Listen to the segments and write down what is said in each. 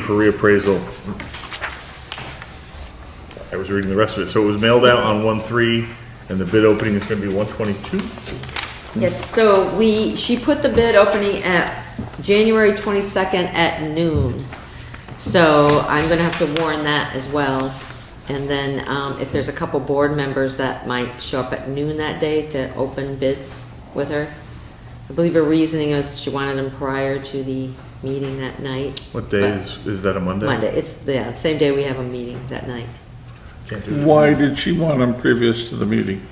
for reappraisal. I was reading the rest of it. So it was mailed out on one three, and the bid opening is gonna be one twenty-two? Yes, so we, she put the bid opening at January twenty-second at noon. So I'm gonna have to warn that as well. And then, um, if there's a couple board members that might show up at noon that day to open bids with her. I believe her reasoning is she wanted them prior to the meeting that night. What day is, is that a Monday? Monday, it's, yeah, the same day we have a meeting that night. Can't do that. Why did she want them previous to the meeting?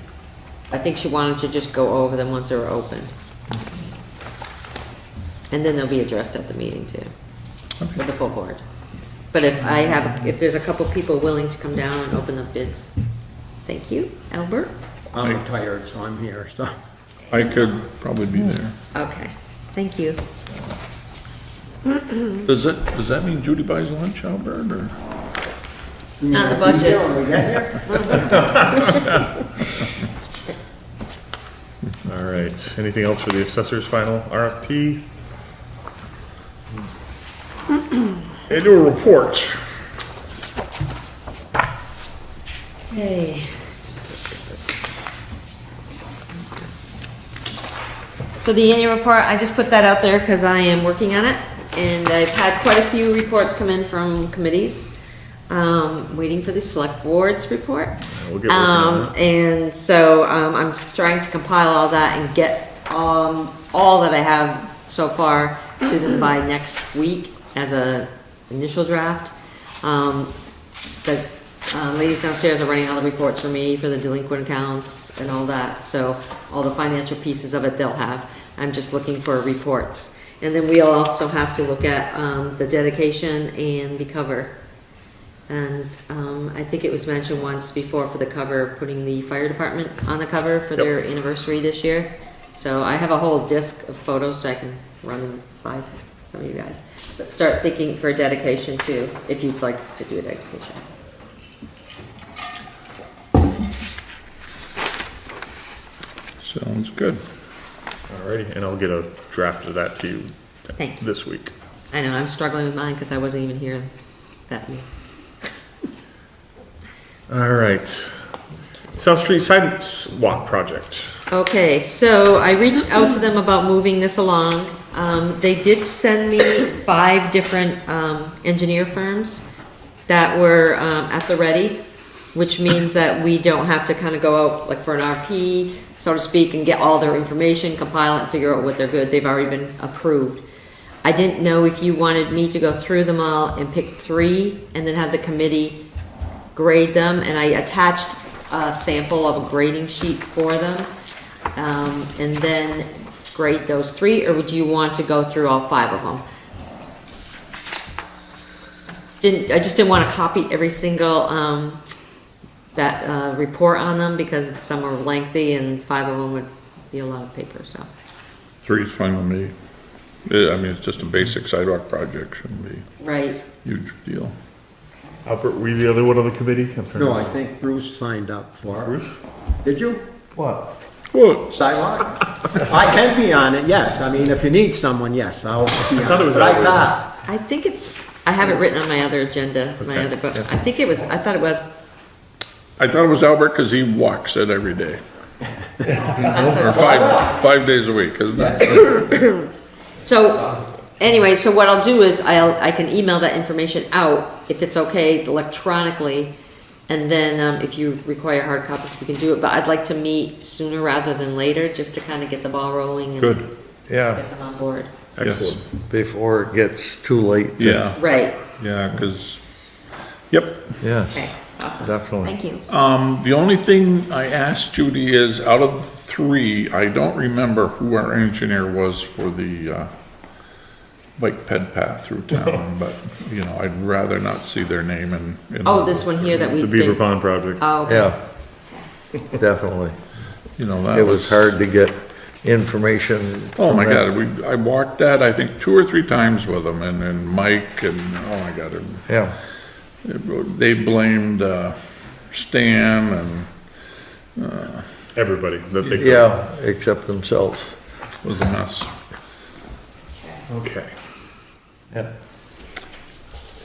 I think she wanted to just go over them once they were opened. And then they'll be addressed at the meeting too, with the full board. But if I have, if there's a couple people willing to come down and open the bids, thank you, Albert. I'm retired, so I'm here, so. I could probably be there. Okay, thank you. Does that, does that mean Judy buys lunch, Albert, or? On the budget, We get there? All right. Anything else for the assessor's final RFP? Hmm. Annual report. hey. So the annual report, I just put that out there because I am working on it, and I've had quite a few reports come in from committees. Um, waiting for the select board's report. we'll get working on Um, And so, um, I'm s- trying to compile all that and get, um, all that I have so far to them by next week as a initial draft. Um, the uh, ladies downstairs are running all the reports for me for the delinquent accounts and all that, so all the financial pieces of it they'll have. I'm just looking for reports. And then we'll also have to look at, um, the dedication and the cover. And, um, I think it was mentioned once before for the cover, putting the fire department on the cover for their anniversary this year. So I have a whole disc of photos so I can run them by some of you guys. But start thinking for a dedication too, if you'd like to do a dedication. Sounds good. All righty, and I'll get a draft of that to you Thank you. this week. I know, I'm struggling with mine because I wasn't even here that week. All right. South Street Sidewalk Project. Okay, so I reached out to them about moving this along. Um, they did send me five different, um, engineer firms that were, um, at the ready, which means that we don't have to kind of go out like for an RP, so to speak, and get all their information, compile it, and figure out what they're good. They've already been approved. I didn't know if you wanted me to go through them all and pick three and then have the committee grade them, and I attached a sample of a grading sheet for them. Um, and then grade those three, or would you want to go through all five of them? Didn't, I just didn't wanna copy every single, um, that, uh, report on them, because some are lengthy and five of them would be a lot of paper, so. Three is fine with me. Yeah, I mean, it's just a basic sidewalk project, shouldn't be Right, a huge deal. Albert, were you the other one on the committee? I'm trying to- No, I think Bruce signed up for it. Bruce? Did you? What? Well, Sidewalk? I can be on it, yes. I mean, if you need someone, yes, I'll be thought on it it. was But I Albert. thought, I think it's, I have it written on my other agenda, my Okay, other book, I think it was, I thought it was, I thought it was Albert because he walks it every day, that's what or it five, five days a week, isn't it? So, anyway, so what I'll do is I'll, I can email that information out, if it's okay electronically, and then, um, if you require hard copies, we can do it, but I'd like to meet sooner rather than later, just to kind of get the ball rolling and get Good, Yeah, them on board. Excellent. before it gets too late. yeah, Right, yeah, because, yep. Yes. okay, awesome. Definitely. Thank you. Um, the only thing I asked Judy is, out of three, I don't remember who our engineer was for the, uh, bike ped path through town, but, you know, I'd rather not see their name in. in- Oh, this one here that we The did. Beaver Pond Project. Oh, okay. Yeah, definitely. You know, that It was hard to get information. Oh, from my that. God, we, I walked that, I think, two or three times with them, and, and Mike, and, oh my God, and Yeah, they blamed, uh, Stan and, Everybody that they. yeah, except themselves. it was a mess. Okay. Yeah.